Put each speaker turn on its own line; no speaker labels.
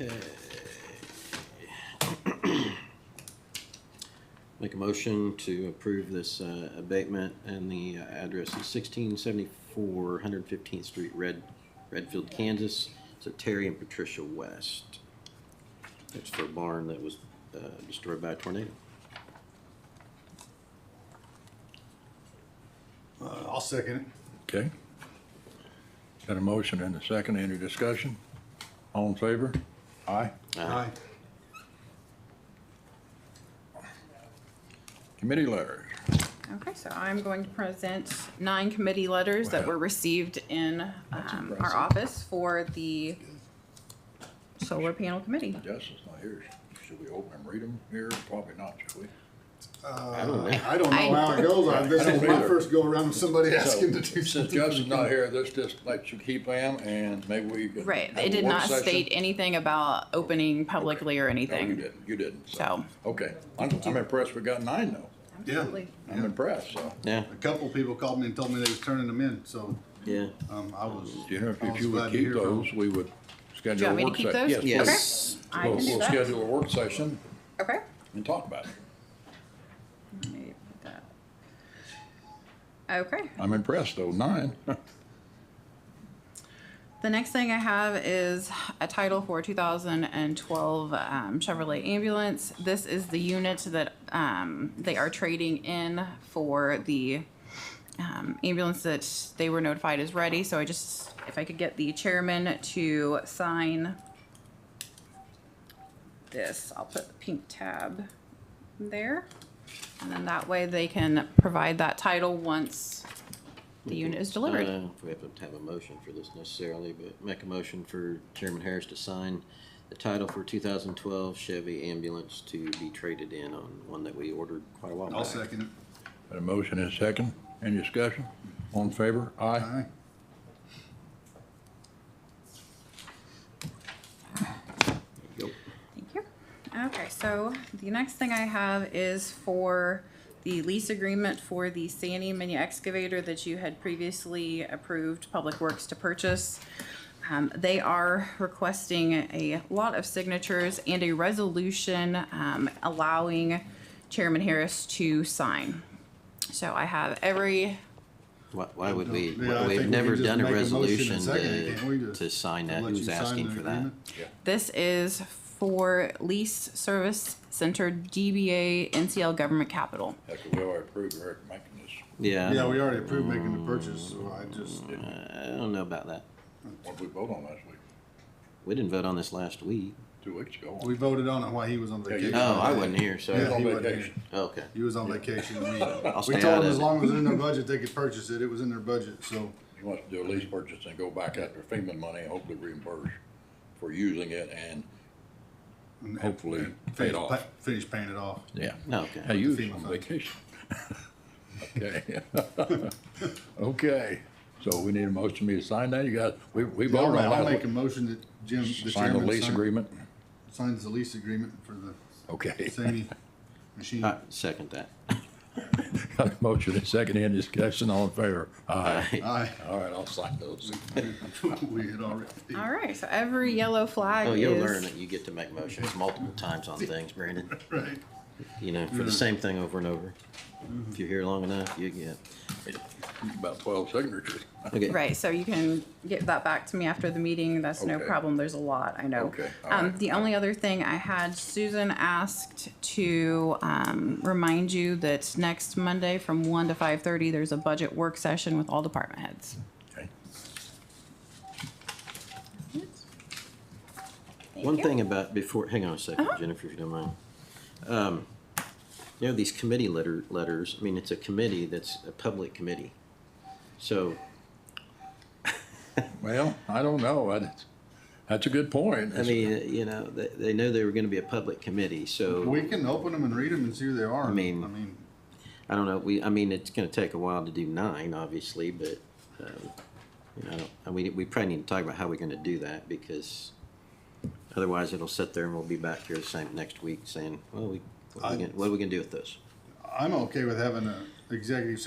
Okay. Make a motion to approve this uh, abatement and the uh, address is sixteen seventy-four, Hundred Fifteenth Street, Red, Redfield, Kansas. So Terry and Patricia West. It's for a barn that was uh, destroyed by a tornado.
Uh, I'll second it.
Okay. Got a motion and a second. Any discussion? All in favor? Aye.
Aye.
Committee letters.
Okay, so I'm going to present nine committee letters that were received in um, our office for the solar panel committee.
Justin's not here. Should we open and read them here? Probably not, should we?
I don't know
I-
how it goes. I- This is
don't
my
either.
first go around with somebody asking to do
Since
something.
Justin's not here, let's just let you keep them and maybe we. can
Right,
have a
it did
work
not
session.
state anything about opening publicly or
No, you
anything.
didn't. You didn't.
So-
Okay. I'm, I'm impressed we got nine though.
Yeah.
Absolutely.
I'm impressed, so.
Yeah,
A couple people called me and told me they was turning them in, so,
yeah.
um, I was.
You know,
I
if
was
you
glad
would
to
keep
hear from
those, we would schedule a
want me to
work
keep
session.
those?
Yes, please.
Yes.
I
We'll,
can do
we'll
that.
schedule a work session
Okay.
and talk about it.
Let me put that. Okay.
I'm impressed though, nine.
The next thing I have is a title for 2012 um, Chevrolet ambulance. This is the unit that um, they are trading in for the um, ambulance that they were notified is ready. So I just, if I could get the chairman to sign this, I'll put the pink tab there. And then that way they can provide that title once the unit is
I
delivered.
don't know Uh, if we have to have a motion for this necessarily, but make a motion for Chairman Harris to sign the title for two thousand twelve Chevy ambulance to be traded in on one that we ordered quite a while
it.
back.
I'll second it.
Got a motion and a second. Any discussion? All in favor? Aye.
Aye.
Yep.
Thank you. Okay, so the next thing I have is for the lease agreement for the Sandy mini excavator that you had previously approved Public Works to purchase. Um, they are requesting a lot of signatures and a resolution, um, allowing Chairman Harris to sign. So I have every,
Why, why would we,
Yeah, I think
we've
we
never
can just
done a
make a motion and
resolution
second it, can't we,
to,
to-
to sign
I'll
that,
let you
who's
sign
asking
the
for that?
agreement.
this is for Lease Service Center DBA NCL Government Capital.
Heck, we already approved Eric making this.
Yeah, I
Yeah, we
don't-
already approved making the purchase, so I just,
I don't know about that.
What did we vote on last week?
We didn't vote on this last week.
Two weeks ago.
we voted on it while he was on
Yeah, you-
vacation.
Oh, I wasn't here,
He was
Yeah.
so,
on
he wasn't
vacation.
okay.
He was on vacation. Oh, We we told
stay
him
out of
as
it.
long as it was in their budget, they could purchase it. It was in their budget, so.
He wants to do a lease purchase and go back after FEMA money and hopefully reimburse for using it and hopefully pay it
finish
off.
pa- Finish paying it off.
Yeah. Hey,
Oh, Okay.
you
the
was
FEMA
on
money.
vacation. Okay. Okay, so we need a motion to sign that. You got, we, we
I'll
voted
ma-
on
I'll make
last week.
a motion that Jim, the
Sign the
chairman
lease
sign-
agreement.
signs the lease agreement for the
Okay.
Sandy machine.
I second that.
Got a motion and a second. Any discussion? All in favor? Aye.
Aye.
All right, I'll sign those.
We had already.
All right, so every yellow flag
Oh,
is.
you'll learn that you get to make motions multiple times on things, Brandon.
Right.
You know, for the same thing over and over. If you're here long enough, you get.
About twelve signatures.
Okay.
Right, so you can get that back to me after the meeting, that's no
Okay.
problem, there's a lot, I know.
Okay, all
Um,
right.
the only other thing I had, Susan asked to, um, remind you that next Monday from one to five thirty, there's a budget work session with all department heads.
Okay.
Thank
One
you. Uh-huh.
thing about before, hang on a second, Jennifer, if you don't mind. Um, You know, these committee letter, letters, I mean, it's a committee that's a public committee. So,
Well, I don't know. That's, that's a good point.
I mean, uh, you know, they, they know they were gonna be a public committee, so,
We can open them and read them and see who they are.
I mean-
I mean,
I don't know, we, I mean, it's gonna take a while to do nine, obviously, but, um, you know, I don't- I- we, we probably need to talk about how we're gonna do that, because otherwise it'll sit there and we'll be back here the same next week saying, well, we, what are we
I-
gonna- what are we gonna do with this?
I'm okay with having a executive